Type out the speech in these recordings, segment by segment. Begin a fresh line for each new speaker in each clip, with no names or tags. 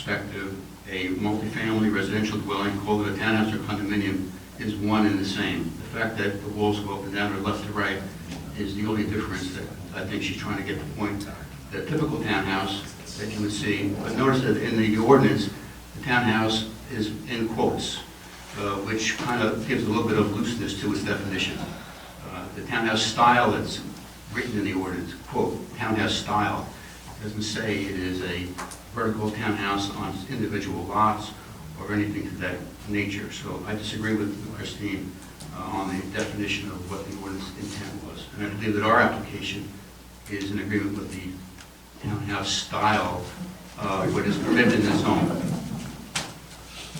perspective, a multifamily residential dwelling, call it a townhouse or condominium, is one and the same. The fact that the walls go up and down or left to right is the only difference that I think she's trying to get the point. The typical townhouse that you would see, but notice that in the ordinance, the townhouse is in quotes, uh, which kind of gives a little bit of looseness to its definition. Uh, The townhouse style that's written in the ordinance, quote, townhouse style, doesn't say it is a vertical townhouse on individual lots or anything to that nature. So I disagree with Christine uh, on the definition of what the ordinance intent was. And I believe that our application is in agreement with the townhouse style, uh, what is permitted in the zone,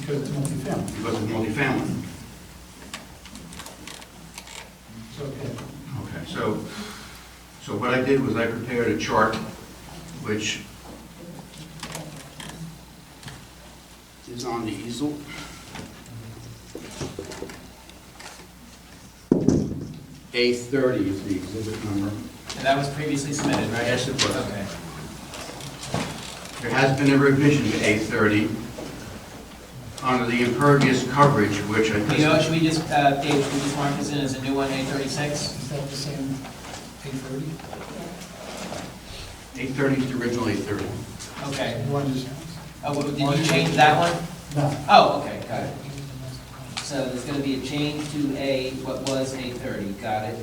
because it's multifamily.
because it's multifamily.
It's okay.
Okay, so, so what I did was I prepared a chart which is on the easel. A thirty is the exhibit number.
And that was previously submitted, right?
Yes, it was.
Okay.
There has been a revision to A thirty under the impervious coverage, which I
You know,
just,
should we just, uh, Dave, should we just mark this in as a new one, A thirty-six?
Is that the same eight thirty?
A thirty is the original A thirty.
Okay.
One is,
Oh, well, did you change that one?
no.
Oh, okay, got it. So there's gonna be a change to A, what was A thirty, got it.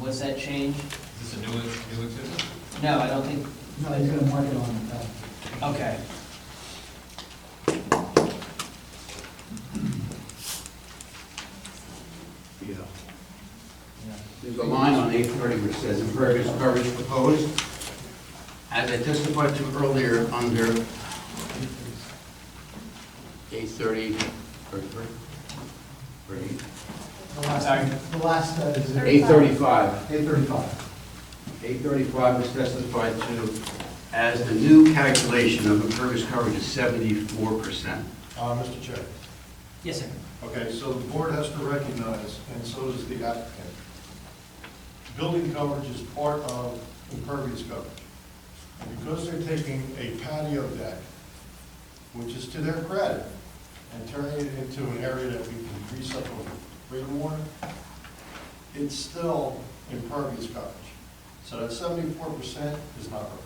What's that change?
Is this a new, new exhibit?
No, I don't think,
No, he's gonna mark it on, uh,
okay.
Yeah. There's a line on eight thirty which says impervious coverage proposed. As I testified to earlier, under eight thirty, or
the last-
Sorry.
The last, uh, is
eight thirty-five.
eight thirty-five.
Eight thirty-five was testified to as the new calculation of impervious coverage is seventy-four percent.
Uh, Mr. Chair,
Yes, sir.
okay, so the board has to recognize, and so does the applicant, building coverage is part of impervious coverage. And Because they're taking a patio deck, which is to their credit, and turning it into an area that we can grease up with rainwater, it's still impervious coverage. So that seventy-four percent is not right.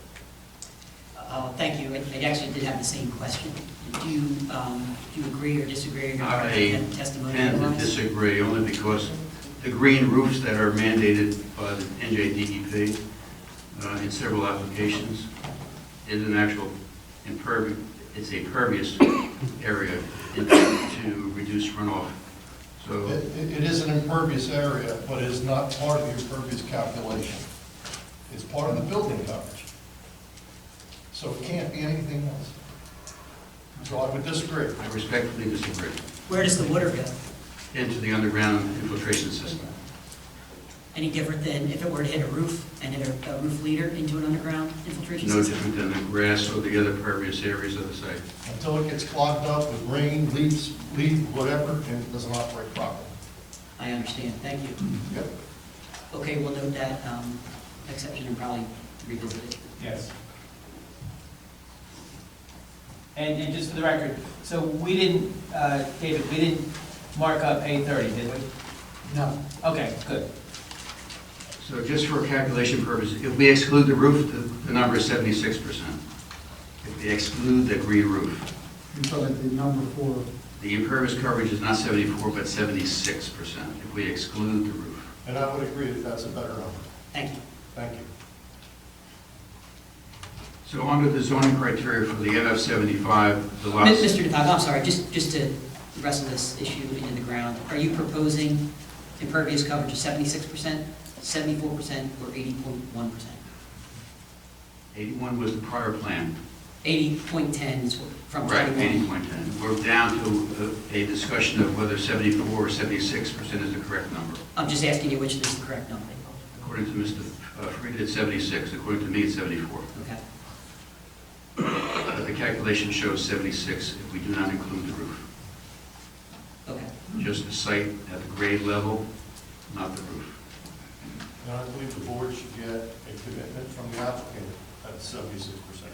Uh, Thank you. I I actually did have the same question. Do you, um, do you agree or disagree
I
regarding the testimony?
tend to
otherwise?
disagree, only because the green roofs that are mandated by the NJDEP E uh, in several applications is an actual impervious, it's a pervious area in- to reduce runoff. So,
It, it- it is an impervious area, but it is not part of the impervious calculation. It's part of the building coverage. So it can't be anything else. So I would disagree.
I respectfully disagree,
Where does the water go?
into the underground infiltration system.
Any different than if it were to hit a roof and hit a- a roof leader into an underground infiltration
No
system?
different than the grass or the other pervious areas of the site.
Until it gets clogged up with rain, leaves, leaf, whatever, and it doesn't operate properly.
I understand. Thank you.
Yep.
Okay, we'll note that um, exception and probably revisit it.
Yes. And, and just for the record, so we didn't, uh, David, we didn't mark up A thirty, did we?
No,
Okay, good.
So just for calculation purposes, if we exclude the roof, the- the number is 76%. If we exclude the green roof,
you're talking about the number four.
the impervious coverage is not 74, but 76% if we exclude the roof.
And I would agree that that's a better number.
Thank you.
Thank you.
So under the zoning criteria for the NF 75, the
Mi-
lots...
Mr. DePaolo, I'm sorry, just, just to wrestle this issue into the ground, are you proposing impervious coverage of 76%, 74%, or 80.1%?
81 was the prior plan.
80.10 is what- from
Right,
21.
80.10. We're down to uh, a discussion of whether 74 or 76% is the correct number.
I'm just asking you which is the correct number.
According to Mr. Fried, it's 76. According to me, it's 74.
Okay,
Uh, The calculation shows 76 if we do not include the roof,
okay.
just the site at the grade level, not the roof.
And I believe the board should get a commitment from the applicant at seventy-six percent.